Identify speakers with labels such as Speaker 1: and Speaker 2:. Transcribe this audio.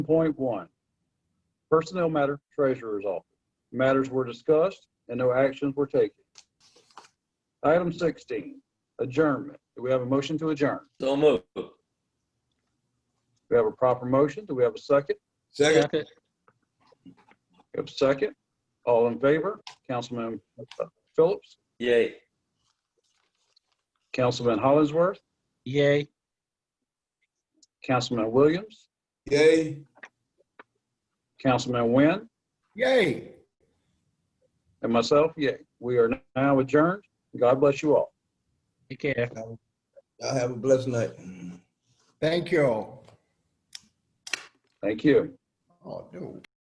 Speaker 1: Point one, personnel matter, treasurer's office. Matters were discussed and no actions were taken. Item sixteen, adjournment. Do we have a motion to adjourn?
Speaker 2: So move.
Speaker 1: We have a proper motion. Do we have a second?
Speaker 3: Second.
Speaker 4: Second.
Speaker 1: We have a second. All in favor? Councilman uh, Phillips,
Speaker 2: Yay.
Speaker 1: Councilman Hollingsworth,
Speaker 4: Yay.
Speaker 1: Councilman Williams,
Speaker 3: Yay.
Speaker 1: Councilman Nguyen,
Speaker 3: Yay.
Speaker 1: and myself, yay. We are now adjourned. God bless you all.
Speaker 4: Take care.
Speaker 3: Y'all have a blessed night.
Speaker 5: Thank you.
Speaker 1: Thank you.
Speaker 5: Oh, dude.